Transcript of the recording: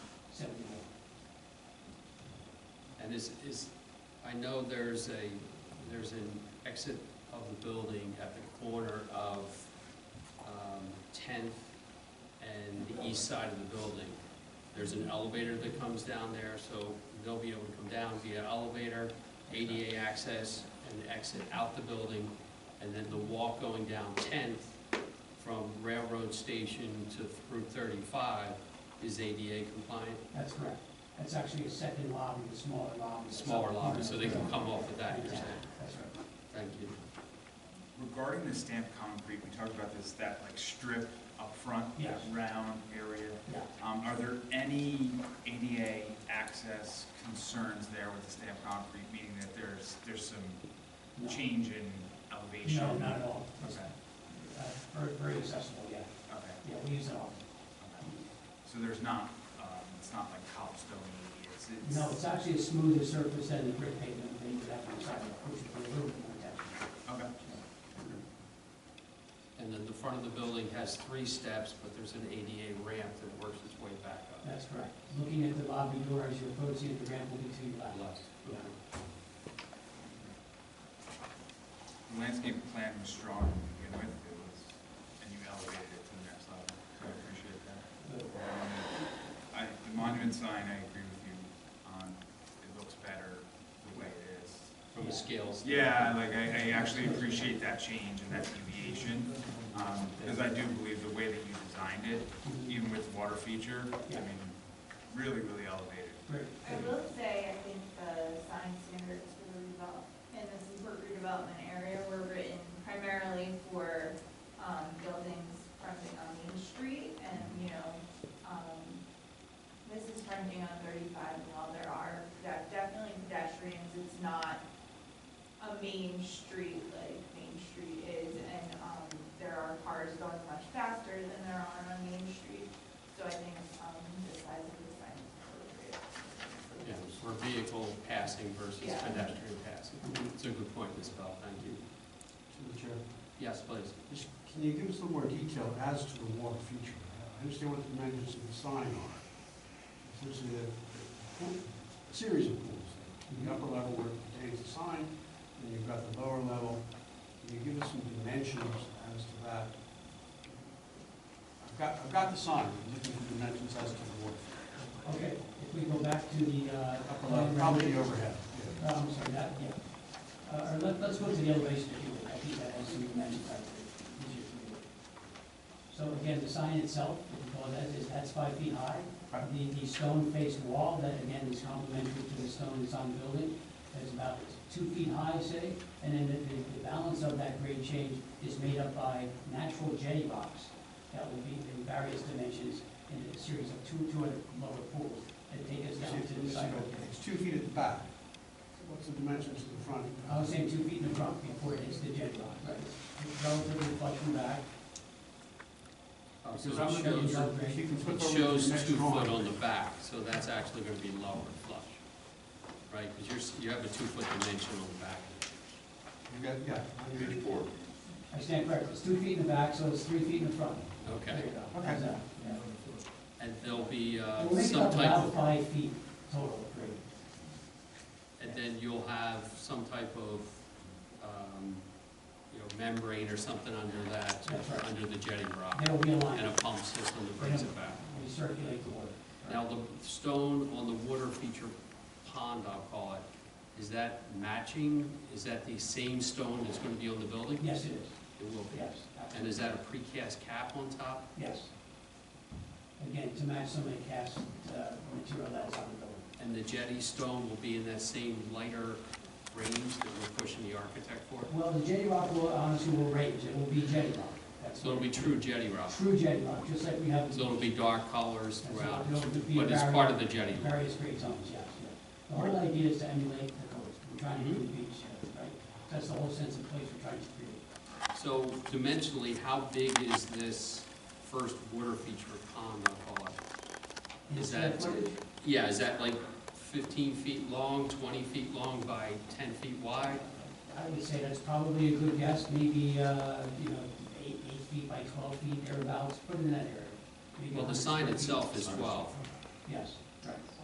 that is, is, I know there's a, there's an exit of the building at the corner of um, 10th and the east side of the building. There's an elevator that comes down there, so they'll be able to come down via elevator, ADA access, and exit out the building, and then the walk going down 10th from Railroad Station to Route 35 is ADA compliant. That's correct. That's actually a second lobby, the smaller lobby. smaller lobby, so they can come off of that, you're saying? Exactly, That's right. Thank you. Regarding the stamped concrete, we talked about this, that like strip up front, that Yes. round area. Yeah. Um, are there any ADA access concerns there with the stamped concrete, meaning that there's, there's some No. change in elevation? No, not at all. Okay, Uh, Very, very accessible, yeah. okay, Yeah, we use it all. okay. So there's not, um, it's not like cobblestone, it's, it's. No, it's actually a smoother surface than the brick pavement, they would have to try to push it a little bit more down. Okay, And then the front of the building has three steps, but there's an ADA ramp that works its way back up. That's correct. Looking at the lobby door as you approach it, the ramp will be to your left. Left. Yeah. the landscape plan was strong to begin with, it was, and you elevated it to the next level, so I appreciate that. But I, the monument sign, I agree with you on, it looks better the way it is. From the scales. Yeah, like, I, I actually appreciate that change and that deviation, um, because I do believe the way that you designed it, even with the water feature, I mean, really, really elevated. Great. I will say, I think the sign standards for the redevelop, in the Seaport redevelopment area were written primarily for, um, buildings fronting on Main Street and, you know, um, this is fronting on thirty-five and while there are de- definitely pedestrians, it's not a main street like Main Street is and, um, there are cars going much faster than there are on Main Street. So I think, um, the size of the sign is appropriate. Yeah, For vehicle passing versus Yeah. pedestrian passing. It's a good point, Ms. Bell, thank you. To the chair, Yes, please. Just- can you give us a little more detail as to the water feature? I understand what the dimensions of the sign are. Essentially, a a pool- a series of pools. The upper level where it contains the sign, and you've got the lower level. Can you give us some dimensions as to that? I've got, I've got the sign, I'm looking for dimensions as to the water. feature. Okay, if we go back to the, uh. Upper level, probably the overhead. Uh, I'm sorry, that, yeah. Uh, Or let- let's go to the elevation if you would, I think that has some dimensions right there. Easier for you. So again, the sign itself, if you call that, is, that's five feet high. Right. The, the stone faced wall, that again is complementary to the stone that's on the building, is about two feet high, say. And then the- the, the balance of that grade change is made up by natural jetty rocks that will be in various dimensions in a series of two, two and lower pools that take us down to the It's- side. It's two feet at the back. What's the dimensions to the front? I was saying two feet in the front before it hits the jet line, right? It's Relatively flush from back, Uh, So Because I'm it looking shows, at your- if you can flip it over to shows the next two drawing. foot on the back, so that's actually going to be lower flush, right? Because you're, s- you have a two foot dimension on the back. You got, yeah. Page four. I stand corrected, it's two feet in the back, so it's three feet in the front. There Okay, you go. Okay. How's that? Yeah. and there'll be uh, We'll make it some up type of about five feet total, great. And then you'll have some type of, um, you know, membrane or something under that, That's right. under the jetting rock, There will be a and a line, pump system that brings it back. we circulate the water. Now, the stone on the water feature pond, I'll call it, is that matching? Is that the same stone that's gonna be on the building? Yes, it is, It will be. yes, And absolutely, is that a precast cap on top? yes. Again, to match some of the cast, uh, material that's on the building. And the jetty stone will be in that same lighter range that we're pushing the architect for? Well, the jetty rock will, honestly, will range, it will be jetty rock. That's So it'll be true jetty rock. True jetty rock, just like we have. So it'll be dark colors That's throughout, not- it'll be but it's very- part of the jetty rock. Various grade zones, yes, yeah. The whole idea is to emulate the coast, we're trying to do Mm-hmm. the beach, uh, right? That's the whole sense of place we're trying to create. So dimensionally, how big is this first water feature pond, I'll call it? And Is square that- footage, Yeah, is that like fifteen feet long, twenty feet long by ten feet wide? I would say that's probably a good guess, maybe, uh, you know, eight, eight feet by twelve feet, thereabouts, put it in that area. Maybe Well, the 100 sign square feet. itself is twelve, Yes,